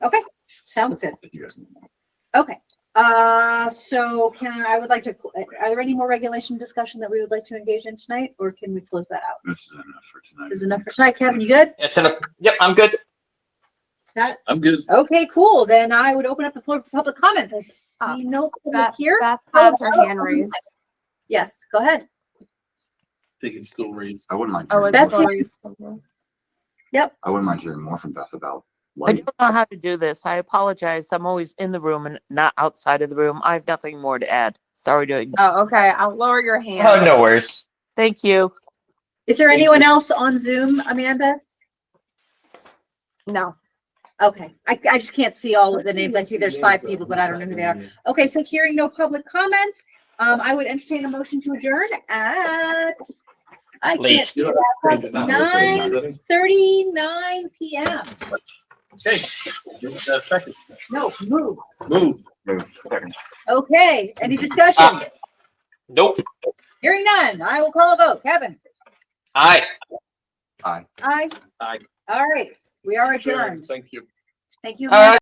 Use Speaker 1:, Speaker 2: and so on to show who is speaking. Speaker 1: Sounds good. Okay, uh, so can, I would like to, are there any more regulation discussion that we would like to engage in tonight, or can we close that out?
Speaker 2: This is enough for tonight.
Speaker 1: Is enough for tonight, Kevin, you good?
Speaker 3: It's in a, yep, I'm good.
Speaker 1: That,
Speaker 2: I'm good.
Speaker 1: okay, cool, then I would open up the floor for public comments, I see no public
Speaker 4: Beth,
Speaker 1: here.
Speaker 4: Beth
Speaker 1: Oh,
Speaker 4: has her
Speaker 1: oh,
Speaker 4: hand
Speaker 1: oh,
Speaker 4: raised.
Speaker 1: Yes, go ahead,
Speaker 5: They can still raise.
Speaker 2: I wouldn't mind,
Speaker 4: Oh,
Speaker 2: hearing-
Speaker 4: it's
Speaker 1: Beth's here.
Speaker 4: Lori's.
Speaker 2: I wouldn't mind hearing more from Beth about
Speaker 6: I
Speaker 2: light.
Speaker 6: don't know how to do this. I apologize. I'm always in the room and not outside of the room. I have nothing more to add. Sorry to,
Speaker 4: Oh, okay. I'll lower your hand.
Speaker 3: Oh, no worries.
Speaker 6: thank you.
Speaker 1: is there
Speaker 5: Thank
Speaker 1: anyone
Speaker 5: you.
Speaker 1: else on Zoom, Amanda?
Speaker 4: No.
Speaker 1: Okay, I, I just can't see all of the names, I see there's five people, but I don't know who they are. Okay, so hearing no public comments, um, I would entertain a motion to adjourn at, I can't
Speaker 3: Late.
Speaker 1: see that, nine thirty-nine PM.
Speaker 5: Okay. Uh, Second.
Speaker 1: No, move.
Speaker 5: Move.
Speaker 1: Okay, any discussion?
Speaker 3: Uh. Nope.
Speaker 1: Hearing none, I will call a vote. Kevin?
Speaker 3: Aye.
Speaker 2: Aye.
Speaker 1: Aye.
Speaker 5: Aye.
Speaker 1: All right, we are adjourned.
Speaker 5: Thank you.
Speaker 1: Thank you.
Speaker 3: Aye.